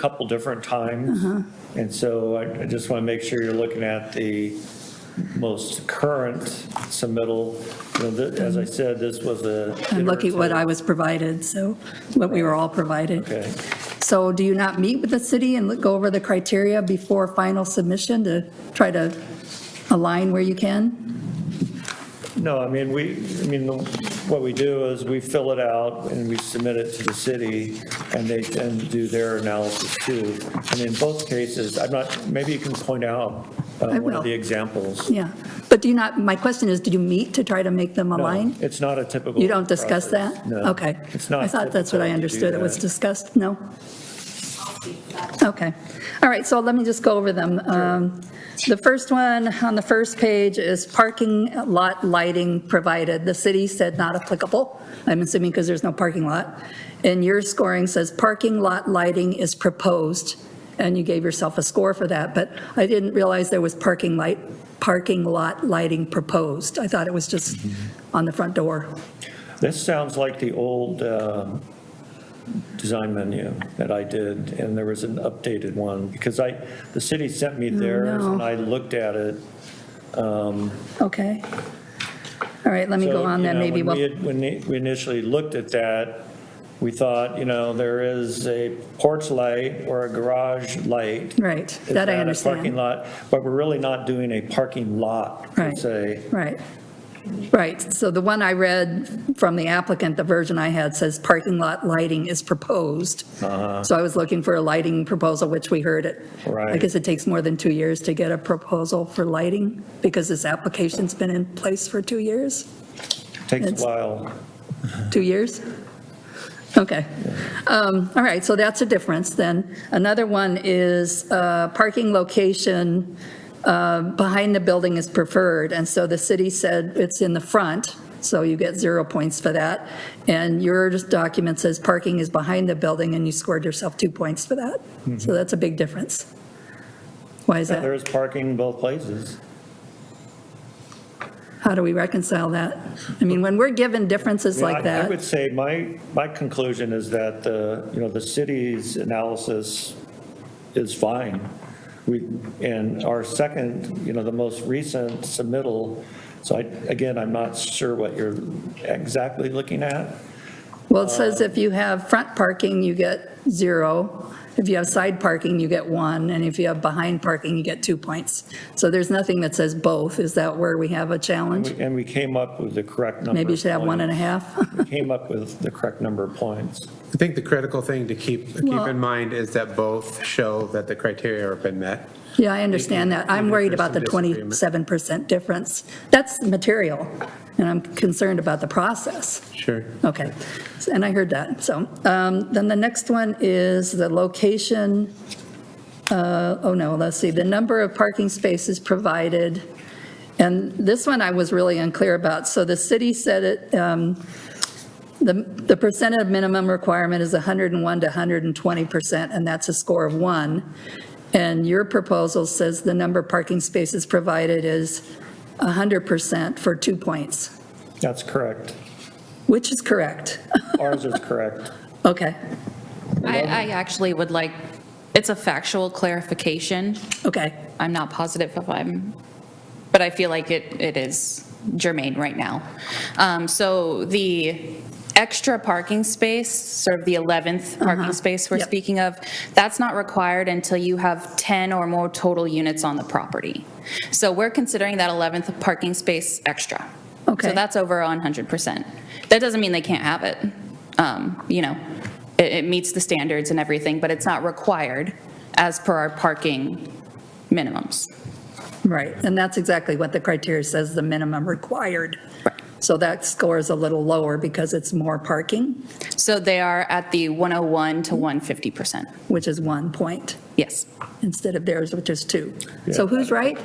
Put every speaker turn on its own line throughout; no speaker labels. couple different times.
Uh-huh.
And so I I just want to make sure you're looking at the most current submittal. You know, the- As I said, this was a.
I'm looking at what I
iterative-
was provided, so, what we were all provided.
Okay.
So do you not meet with the city and look- go over the criteria before final submission to try to align where you can?
No, I mean, we, I mean, the- what we do is we fill it out and we submit it to the city and they then do their analysis too. And in both cases, I'm not, maybe you can point out uh,
I
one
will.
of the examples.
Yeah, but do you not, my question is, do you meet to try to make them
No,
align?
It's not a typical.
You don't discuss
process.
that?
No.
Okay.
It's not.
I thought that's what I
typical to do
understood, it was
that.
discussed, no? Okay, all right, so let me just go over them. Um, The first one on the first page is parking lot lighting provided. The city said not applicable, I'm assuming because there's no parking lot. And your scoring says parking lot lighting is proposed, and you gave yourself a score for that, but I didn't realize there was parking light, parking lot lighting proposed. I thought it was just
Mm-hmm.
on the front door.
This sounds like the old um, design menu that I did, and there was an updated one, because I, the city sent me theirs,
Oh, no.
and I looked at it.
Okay. All right, let me go
So,
on
you
then,
know,
maybe
when we
we'll,
had- When we initially looked at that, we thought, you know, there is a porch light or a garage light.
right,
Is
that I
a Parking
understand.
lot, but we're really not doing a parking lot, per
Right.
se.
Right, right. So the one I read from the applicant, the version I had says parking lot lighting is proposed. So I was looking for a lighting proposal, which we heard it. I
Uh-huh. Right.
guess it takes more than two years to get a proposal for lighting because this application's been in place for two years.
Takes
It's-
a while.
Two years? Okay. Um, All right, so that's a difference then. Another one is uh, parking location uh, behind the building is preferred, and so the city said it's in the front, so you get zero points for that. And your document says parking is behind the building, and you scored yourself two points for that. So that's a big difference. Why is
Mm-hmm. There
that?
is parking in both places.
How do we reconcile that? I mean, when we're given differences
I-
like
I would
that,
say my, my conclusion is that the, you know, the city's analysis is fine. We, and our second, you know, the most recent submittal, so I, again, I'm not sure what you're exactly looking at.
well, it says if you have front parking, you get zero. If you have side parking, you get one, and if you have behind parking, you get two points. So there's nothing that says both. Is that where we have a challenge?
And we came up with the correct number.
Maybe you
of
should have one and a
points.
half.
We Came up with the correct number of points.
I think the critical thing to keep, keep
Well-
in mind is that both show that the criteria have been met.
Yeah, I understand that. I'm
Even if
worried
there's
about the
some disagreement.
27% difference. That's material, and I'm concerned about the process.
Sure.
Okay, and I heard that, so. um, Then the next one is the location, uh, oh no, let's see, the number of parking spaces provided. And this one I was really unclear about. So the city said it, um, the the percent of minimum requirement is 101 to 120%, and that's a score of one. And your proposal says the number of parking spaces provided is 100% for two points,
That's correct.
which is correct.
Ours is correct.
Okay,
I, I actually would like, it's a factual clarification.
okay.
I'm not positive if I'm, but I feel like it, it is germane right now. Um, So the extra parking space, sort of the 11th parking space we're
Yep.
speaking of, that's not required until you have 10 or more total units on the property. So we're considering that 11th parking space extra.
Okay.
So that's over 100%. That doesn't mean they can't have it. Um, You know, it, it meets the standards and everything, but it's not required as per our parking minimums.
Right, and that's exactly what the criteria says, the minimum required.
Right.
So that score is a little lower because it's more parking,
So they are at the 101 to 150%.
which is one point,
Yes.
instead of theirs, which is two. So who's right?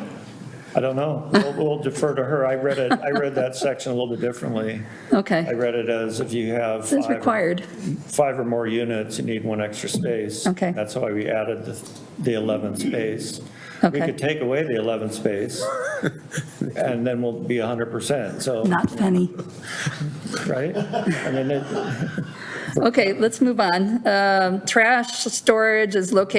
I don't know. We'll we'll defer to her. I read it, I read that section a little bit differently. I
Okay,
read it as if you have.
it's
five or-
required,
five or more units, you need one extra space.
Okay.
That's why we added the, the 11th space. We
Okay.
could take away the 11th space, and then we'll be 100%, so,
not funny.
right? I mean, it-
Okay, let's move on. Um, Trash storage is located